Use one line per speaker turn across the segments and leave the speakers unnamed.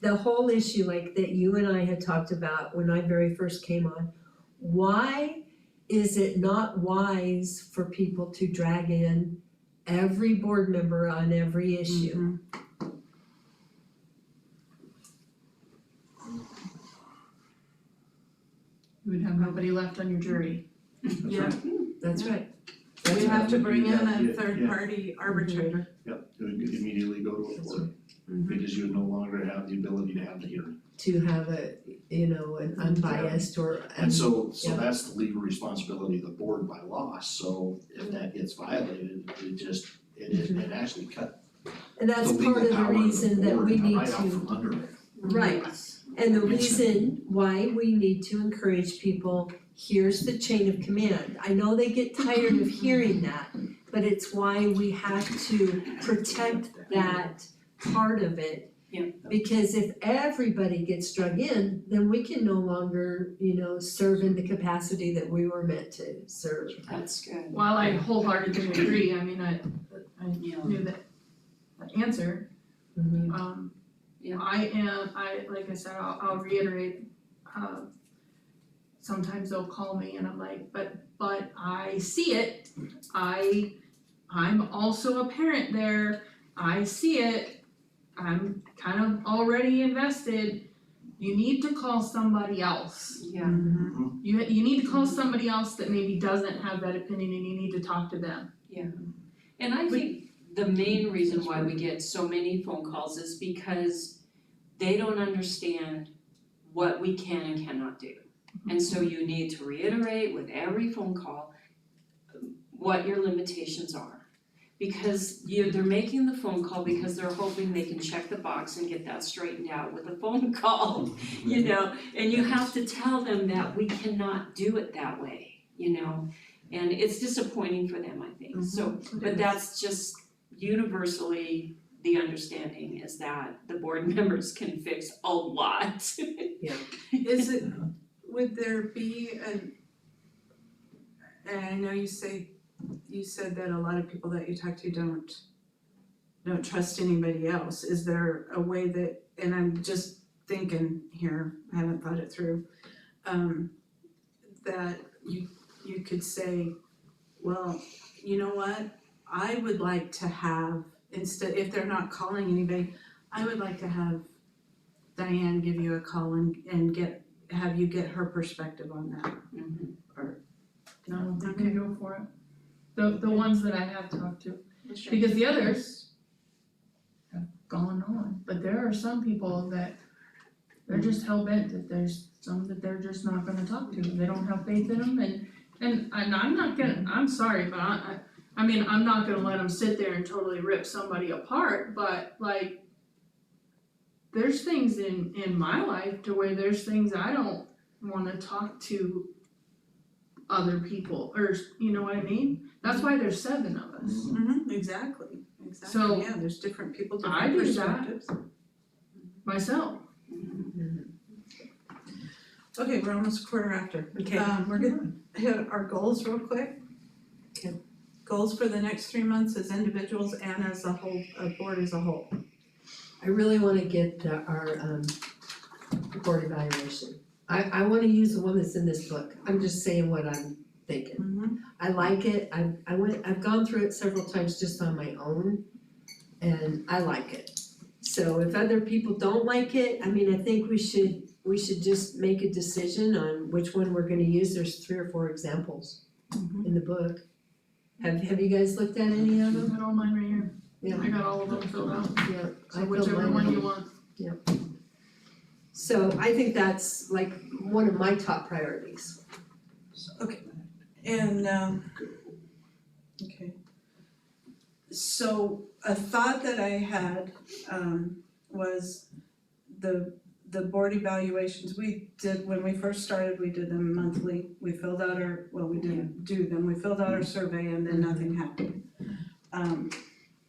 the whole issue like that you and I had talked about when I very first came on, why is it not wise for people to drag in every board member on every issue?
You would have nobody left on your jury.
Yeah.
That's right. That's
We
right.
have to bring in
Yeah,
a
yeah,
third
yeah.
party arbitrator.
Yep, it would immediately go to a
That's
court,
Mm-hmm.
because you would no longer have the ability to have the hearing.
To have a, you know, an unbiased or
And so, so
Mm-hmm. yeah.
that's the legal responsibility of the board by law, so if that
Mm-hmm.
gets violated, it just, it it it actually cut
And
the
Mm-hmm. that's
legal
part of the
power
reason that we need
right out
to,
from under it.
right, and the
Yes.
reason why we need to encourage people, here's the chain of command. I know they get tired of hearing that, but it's why we have to protect that part of it.
Yeah.
Because if everybody gets drug in, then we can no longer, you know, serve in the capacity that we were meant to serve.
That's good.
While I wholeheartedly agree, I mean, I, I
Yeah. Mm-hmm.
knew that the answer,
Mhm.
um,
Yeah.
I am, I, like I said, I'll, I'll reiterate, uh, sometimes they'll call me and I'm like, but, but I see it, I, I'm also a parent there, I see it, I'm kind of already invested, you need to call somebody else.
Yeah.
You you need to call somebody else that maybe doesn't have that opinion and you need to talk to them.
And I think the main reason why we get so many phone calls is because they don't understand what we can and cannot do. And so you need to reiterate with every phone call um, what your limitations are. Because you, they're making the phone call because they're hoping they can check the box and get that straightened out with a phone call, you know? And you have to tell them that we cannot do it that way, you know? And it's disappointing for them, I
Mm-hmm.
think, so but that's just universally the understanding is that the board members can fix a lot.
Is it, would there be an, and I know you say, you said that a lot of people that you talk to don't don't trust anybody else. Is there a way that, and I'm just thinking here, I haven't thought it through, um, that you you could say, well, you know what? I would like to have, instead, if they're not calling anybody, I would like to have Diane give you a call and and get have you get her perspective on that.
No,
they
they
can
can go for it. The the ones that I have talked to, because the others have gone on, but there are some people that they're just hell bent that there's some that they're just not gonna talk to. They don't have faith in them and and and I'm not gonna, I'm sorry, but I I I mean, I'm not gonna let them sit there and totally rip somebody apart, but like there's things in in my life to where there's things I don't want to talk to other people or you know what I mean? That's why there's seven of us.
Mm-hmm, exactly,
So-
exactly, yeah, there's different people,
I
different
do
perspectives.
that. Myself.
Okay, we're almost a quarter after.
Okay.
Um, we're
Uh,
gonna hit our goals real quick.
Okay.
Goals for the next three months as individuals and as a whole, a board as a whole.
I really wanna get the- our um board evaluation. I I wanna use the one that's in this book. I'm just saying what I'm thinking.
Mm-hmm.
I like it, I I went, I've gone through it several times just on my own and I like it. So if other people don't like it, I mean, I think we should, we should just make a decision on which one we're gonna use. There's three or four examples
Mm-hmm.
in the book. Have have you guys looked at any of
I
them?
got all mine right here.
Yeah.
I got all of them filled out.
Yeah, I
So
feel
whichever
mine-
one you want.
So I think that's like one of my top priorities.
And um. Okay. So a thought that I had um was the the board evaluations we did when we first started, we did them monthly. We filled out our, well, we didn't do them, we filled out our survey and then nothing happened. Um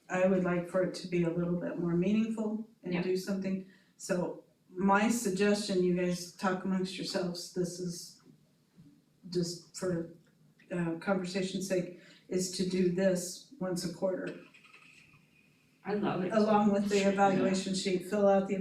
I would like for it to be a little bit more meaningful and
Yeah.
do something. So my suggestion, you guys talk amongst yourselves, this is just for uh conversation's sake, is to do this once a quarter.
I love it.
Along with the evaluation sheet, fill out the